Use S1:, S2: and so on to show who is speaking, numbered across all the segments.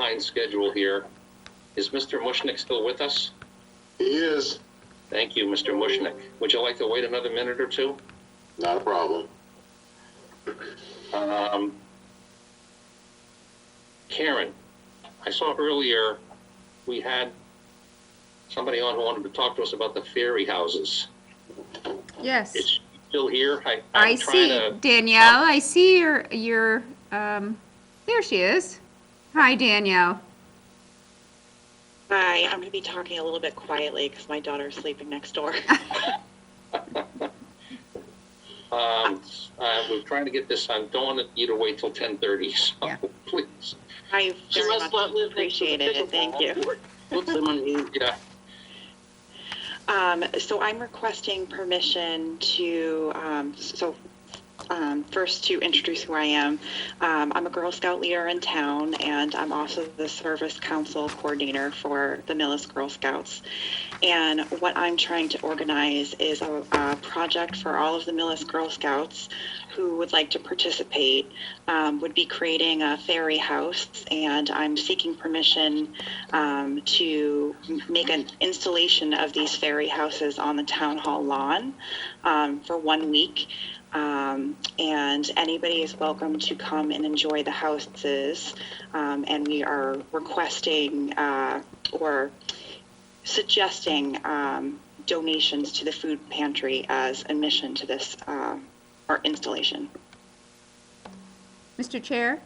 S1: behind schedule here. Is Mr. Mushnick still with us?
S2: He is.
S1: Thank you, Mr. Mushnick. Would you like to wait another minute or two?
S2: Not a problem.
S1: Um, Karen, I saw earlier we had somebody on who wanted to talk to us about the fairy houses. Is
S3: Yes,
S1: she still here? I,
S3: I
S1: I'm trying
S3: see
S1: to.
S3: Danielle. I see your your um. There she is. Hi, Danielle.
S4: Hi, I'm going to be talking a little bit quietly because my daughter's sleeping next door.
S1: Um, uh, we're trying to get this on. Don't want you to wait till ten thirty, so
S3: Yeah.
S1: please.
S4: I
S5: She
S4: very
S5: must
S4: much
S5: not live next to the
S4: appreciate it, and thank you.
S5: Put them on mute.
S1: Yeah,
S4: Um, so I'm requesting permission to, um, so, um, first to introduce who I am. Um, I'm a Girl Scout leader in town, and I'm also the Service Council Coordinator for the Millis Girl Scouts. And what I'm trying to organize is a, a project for all of the Millis Girl Scouts who would like to participate, um, would be creating a fairy house, and I'm seeking permission um, to m- make an installation of these fairy houses on the town hall lawn um, for one week. Um, and anybody is welcome to come and enjoy the houses. Um, and we are requesting uh, or suggesting um, donations to the food pantry as admission to this uh, our installation.
S3: Mr. Chair.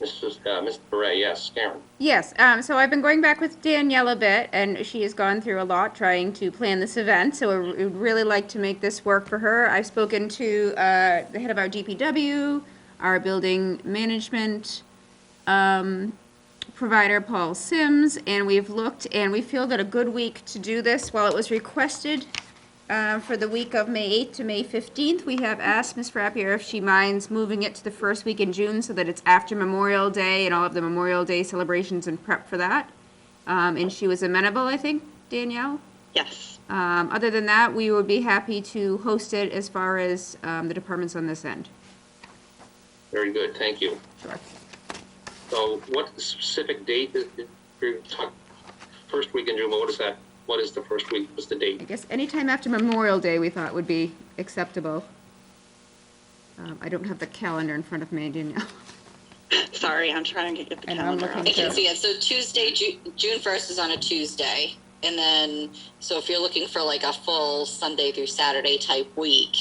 S1: Mrs. Uh, Mr. Beret, yes, Karen.
S3: Yes, um, so I've been going back with Danielle a bit, and she has gone through a lot trying to plan this event. So I would really like to make this work for her. I've spoken to uh, the head of our DPW, our building management um, provider, Paul Sims, and we've looked and we feel that a good week to do this, while it was requested uh, for the week of May 8th to May 15th, we have asked Ms. Frappier if she minds moving it to the first week in June so that it's after Memorial Day and all of the Memorial Day celebrations and prep for that. Um, And she was amenable, I think, Danielle?
S4: Yes.
S3: Um, Other than that, we would be happy to host it as far as um, the departments on this end.
S1: Very good, thank you.
S3: Sure.
S1: So what specific date is, is- you're talk- first week in June, what is that? What is the first week? What's the
S3: I
S1: date?
S3: guess anytime after Memorial Day, we thought would be acceptable. Um, I don't have the calendar in front of me, Danielle.
S4: Sorry, I'm trying to get the
S3: And I'm
S4: calendar
S3: looking
S4: up.
S5: I can see it. So Tuesday, Ju- June first is on a Tuesday, and then so if you're looking for like a full Sunday through Saturday type week,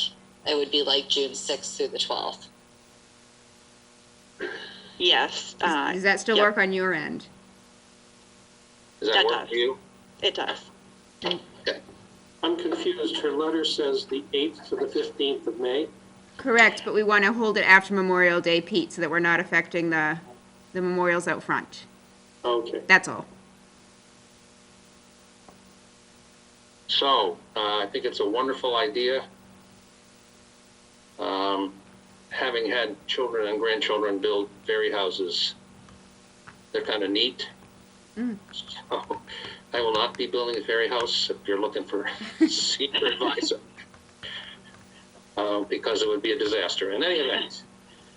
S5: it would be like June sixth through the twelfth.
S4: Yes. uh,
S3: Does does that still
S4: yep,
S3: work on your end?
S1: Does that
S4: That
S1: work
S4: does.
S1: for you?
S4: It does.
S6: I'm confused. Her letter says the 8th to the 15th of May.
S3: Correct, but we want to hold it after Memorial Day, Pete, so that we're not affecting the, the memorials out front.
S6: Okay.
S3: That's all.
S1: So, uh, I think it's a wonderful idea. Um, having had children and grandchildren build fairy houses, they're kind of neat.
S3: Mm.
S1: So, I will not be building a fairy house if you're looking for senior advisor. Uh, because it would be a disaster. In any event,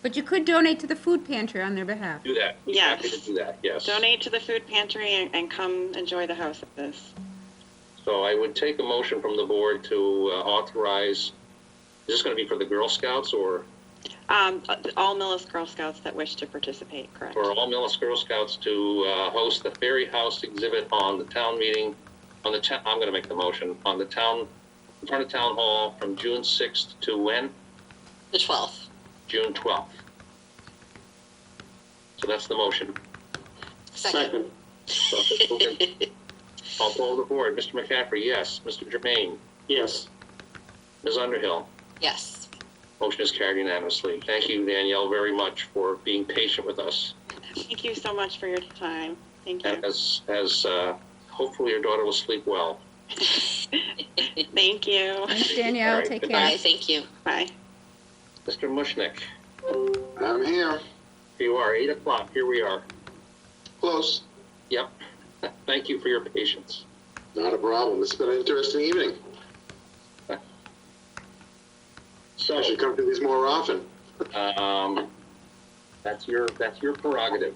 S3: But you could donate to the food pantry on their behalf.
S1: do that. Be
S4: Yes.
S1: Happy to do that, yes.
S4: Donate to the food pantry and, and come enjoy the houses.
S1: So I would take a motion from the board to uh, authorize, is this going to be for the Girl Scouts or
S4: Um, all Millis Girl Scouts that wish to participate, correct?
S1: for all Millis Girl Scouts to uh, host the Fairy House exhibit on the town meeting, on the town, I'm going to make the motion, on the town, in front of Town Hall from June 6th to when?
S5: The twelfth.
S1: June 12th. So that's the motion.
S5: Second.
S1: So if it's moving- I'll poll the board. Mr. McCaffrey, yes. Mr. Jermaine?
S6: Yes.
S1: Ms. Underhill?
S5: yes.
S1: Motion is carried unanimously. Thank you, Danielle, very much for being patient with us.
S4: Thank you so much for your time. Thank you.
S1: And as, as, uh, hopefully your daughter will sleep well.
S4: Thank you.
S3: Thanks, Danielle. Take
S1: All
S5: Bye.
S3: care.
S5: Thank you.
S4: Bye.
S1: Mr. Mushnick,
S2: I'm here.
S1: here you are, eight o'clock, here we are.
S2: Close.
S1: Yep. Thank you for your patience.
S2: Not a problem. It's been an interesting evening.
S1: So,
S2: I should come to these more often.
S1: um, that's your, that's your prerogative.